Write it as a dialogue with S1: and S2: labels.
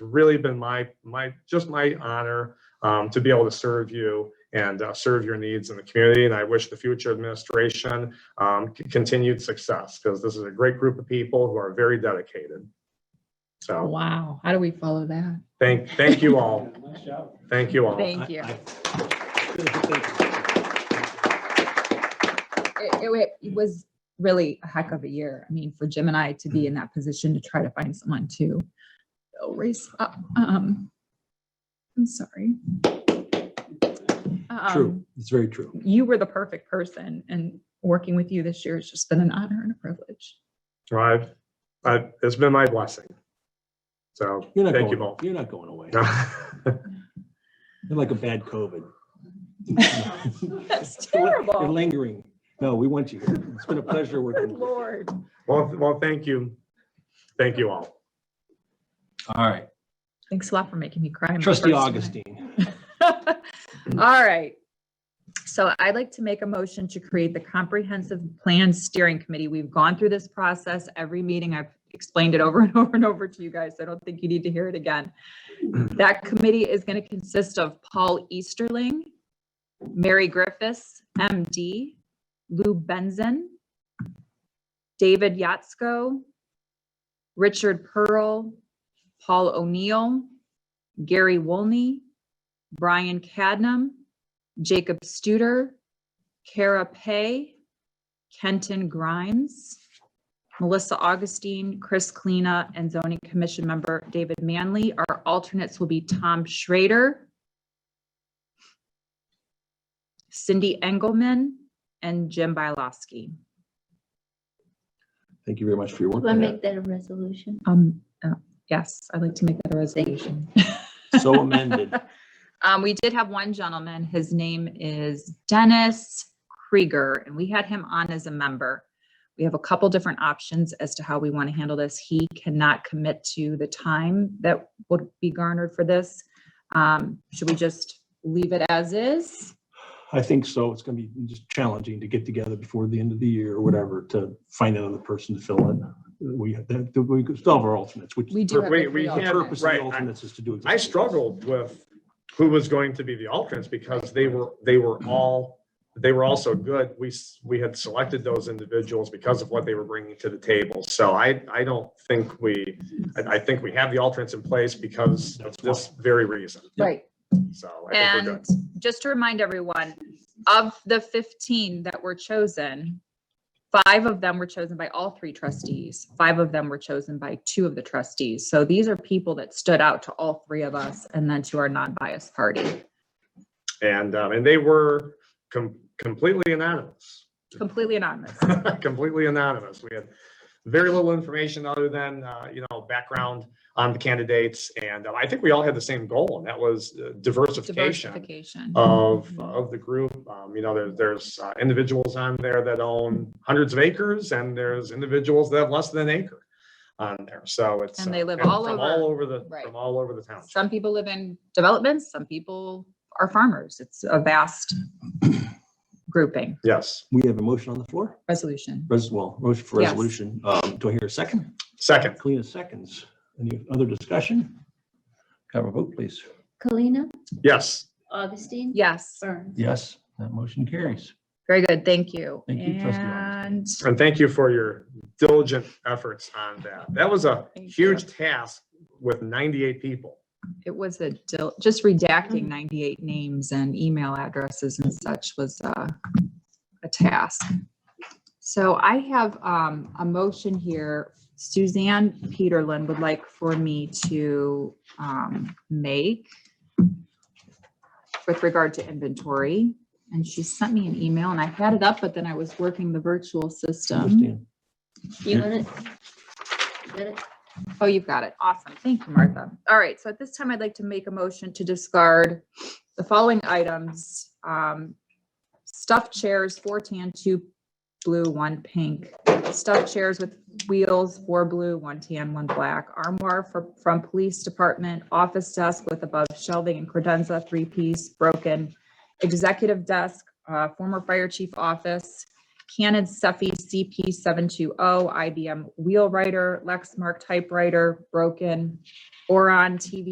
S1: really been my, my, just my honor um, to be able to serve you and uh, serve your needs in the community. And I wish the future administration um, c- continued success because this is a great group of people who are very dedicated. So
S2: Oh, Wow, how do we follow that?
S1: thank, thank you all.
S3: Nice job.
S1: Thank you all.
S2: Thank you.
S3: I- I-
S2: It, it wa- it was really a heck of a year. I mean, for Jim and I to
S3: Mm-hmm.
S2: be in that position to try to find someone to fill race up. Um, I'm sorry.
S3: True,
S2: Um,
S3: it's very true.
S2: You were the perfect person and working with you this year has just been an honor and a privilege.
S1: Well, I've, I've, it's been my blessing. So
S3: You're not
S1: thank you
S3: going,
S1: both.
S3: you're not going away.
S1: Thank
S3: You're like a bad COVID.
S2: That's
S3: You're
S2: terrible.
S3: lingering. No, we want you here. It's been a pleasure
S2: Good
S3: working. with you.
S2: Lord.
S1: Well, th- well, thank you. Thank you all.
S3: All right,
S2: Thanks a lot for making me cry. my
S3: trustee
S2: first time.
S3: Augustine,
S2: All right. So I'd like to make a motion to create the Comprehensive Plan Steering Committee. We've gone through this process every meeting. I've explained it over and over and over to you guys. I don't think you need to hear it again. That committee is going to consist of Paul Easterling, Mary Griffiths, MD, Lou Benson, David Yatsko, Richard Pearl, Paul O'Neill, Gary Woolney, Brian Cadnam, Jacob Studer, Kara Pay, Kenton Grimes, Melissa Augustine, Chris Kleena, and zoning commission member David Manley. Our alternates will be Tom Schrader, Cindy Engelman, and Jim Bylowski.
S3: thank you very much for your work.
S4: Do I
S3: on that.
S4: make that a resolution?
S2: Um, uh, yes, I'd like to make that a resolution.
S3: So amended.
S2: Um, we did have one gentleman, his name is Dennis Krieger, and we had him on as a member. We have a couple different options as to how we want to handle this. He cannot commit to the time that would be garnered for this. Um, should we just leave it as is?
S3: I think so. It's going to be just challenging to get together before the end of the year or whatever to find another person to fill in. We, that- we still have our alternates, which.
S2: We do have. the
S1: We- we
S2: three
S3: The
S1: can't-
S2: alternates.
S3: purpose of
S1: Right,
S3: the
S1: I-
S3: alternates is to do.
S1: I
S3: exactly this.
S1: struggled with who was going to be the alternates because they were, they were all, they were all so good. We, s- we had selected those individuals because of what they were bringing to the table. So I, I don't think we, I, I think we have the alternates in place because of this very reason.
S2: Right.
S1: So I think we're good.
S2: And just to remind everyone, of the 15 that were chosen, five of them were chosen by all three trustees. Five of them were chosen by two of the trustees. So these are people that stood out to all three of us and then to our non-biased party.
S1: And, um, and they were com- completely anonymous.
S2: Completely anonymous.
S1: completely anonymous. We had very little information other than, uh, you know, background on the candidates. And uh, I think we all had the same goal and that was uh, diversification
S2: Diversification. Mm-hmm.
S1: of, uh, of the group. Um, you know, there, there's uh, individuals on there that own hundreds of acres and there's individuals that have less than an acre on there. So it's.
S2: And
S1: uh,
S2: they live all
S1: From
S2: over-
S1: all over the,
S2: right.
S1: from all over the town.
S2: Some people live in developments, some people are farmers. It's a vast grouping.
S1: Yes.
S3: We have a motion on the floor.
S2: Resolution.
S3: Res- Well, motion for
S2: Yes.
S3: resolution. Um, Do I hear a second?
S1: Second,
S3: Kalina seconds. Any other discussion? Have a vote, please.
S4: Kalina,
S1: yes.
S4: Augustine?
S2: Yes.
S4: Burns?
S3: Yes, that motion carries.
S2: Very good. Thank you.
S3: Thank you, trustee
S2: And
S1: And thank you for your diligent efforts on that. That was a
S2: Thank
S1: huge task with 98 people.
S2: it was a dil- just redacting 98 names and email addresses and such was uh, a task. So I have um, a motion here. Suzanne Peterlin would like for me to um, make with regard to inventory. And she sent me an email and I had it up, but then I was working the virtual system.
S3: Understand.
S4: You want it? You got it?
S2: Oh, you've got it. Awesome. Thank you, Martha. All right, so at this time, I'd like to make a motion to discard the following items. um, Stuffed chairs, four tan, two blue, one pink. Stuffed chairs with wheels, four blue, one tan, one black. Armoire for- from Police Department, office desk with above shelving and credenza, three-piece, broken. Executive desk, uh, former fire chief office, Canon Cephei CP seven two oh, IBM Wheelwriter, Lexmark typewriter, broken, Oron TV